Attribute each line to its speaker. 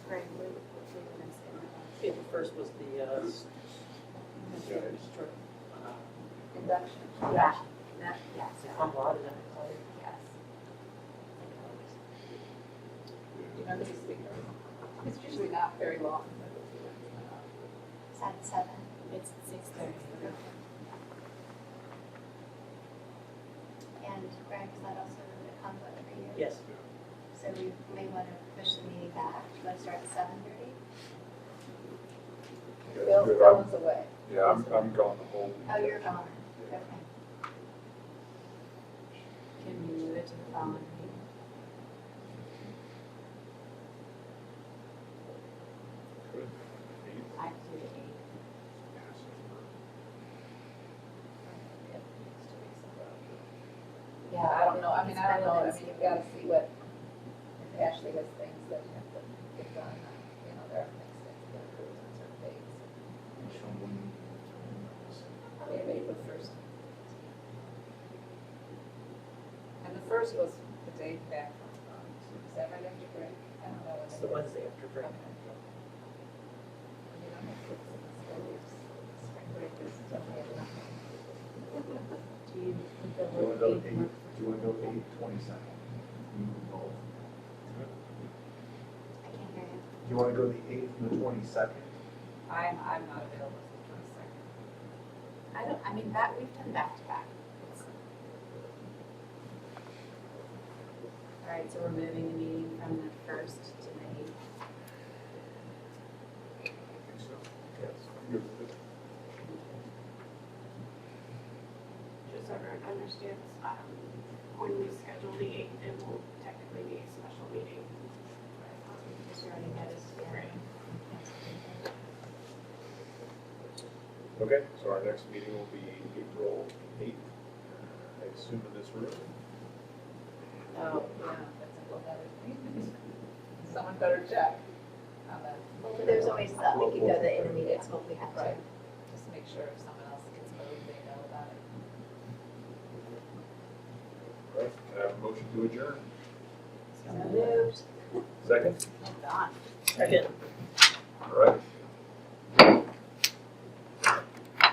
Speaker 1: Okay, the first was the, uh, s- uh,
Speaker 2: Induction. Yeah. That, yes, yeah,
Speaker 1: I'm lauded, I'm sorry.
Speaker 2: yes.
Speaker 3: You know, this is bigger. It's usually not very long.
Speaker 2: It's at seven.
Speaker 4: It's six thirty.
Speaker 2: And Greg, is that also a conflict for you?
Speaker 1: Yes,
Speaker 2: So we may want to push the meeting back. Do you want to start at seven thirty?
Speaker 3: Bill,
Speaker 5: Good,
Speaker 3: Bill
Speaker 5: I'm-
Speaker 3: was away.
Speaker 5: Yeah, I'm, I'm gone the whole.
Speaker 2: Oh, you're gone. Okay.
Speaker 4: Can we move it to the following meeting?
Speaker 5: Good.
Speaker 4: I can do the eighth.
Speaker 3: Yeah, I don't know, I mean, I don't know, I mean, you've gotta see what, if Ashley has things that you have to get done, you know, there are things that you gotta do on certain dates. Maybe April first. And the first was the day back, from, um, is that right after break? I don't know.
Speaker 1: it's the Wednesday after break.
Speaker 3: Okay. You don't have kids in school years. Spring break is definitely enough.
Speaker 4: Do you think the
Speaker 6: Do you
Speaker 4: whole
Speaker 6: want to go
Speaker 4: eighth work?
Speaker 6: eight, do you want to go eight twenty-second? You can go.
Speaker 2: I can't hear you.
Speaker 6: Do you want to go the eighth and the twenty-second?
Speaker 3: I'm, I'm not available for the twenty-second.
Speaker 4: I don't, I mean, that, we've done back to back. It's- All right, so we're moving the meeting from the first to the eighth.
Speaker 6: Yes. You're-
Speaker 7: just so everyone understands, um, when we schedule the eighth, it will technically be a special meeting. um,
Speaker 4: Because we already had this, yeah.
Speaker 5: Okay, so our next meeting will be April eighth, I assume in this room.
Speaker 3: Oh, yeah, that's a whole other thing. Someone better check on that,
Speaker 2: Well, but there's always that.
Speaker 4: We could go the intermediate, so we have to.
Speaker 3: right? Just make sure if someone else gets moved, they know about it.
Speaker 5: Right, can I have a motion to adjourn?
Speaker 4: So moved.
Speaker 5: Second?
Speaker 4: Hold on.
Speaker 1: Second.
Speaker 5: All right,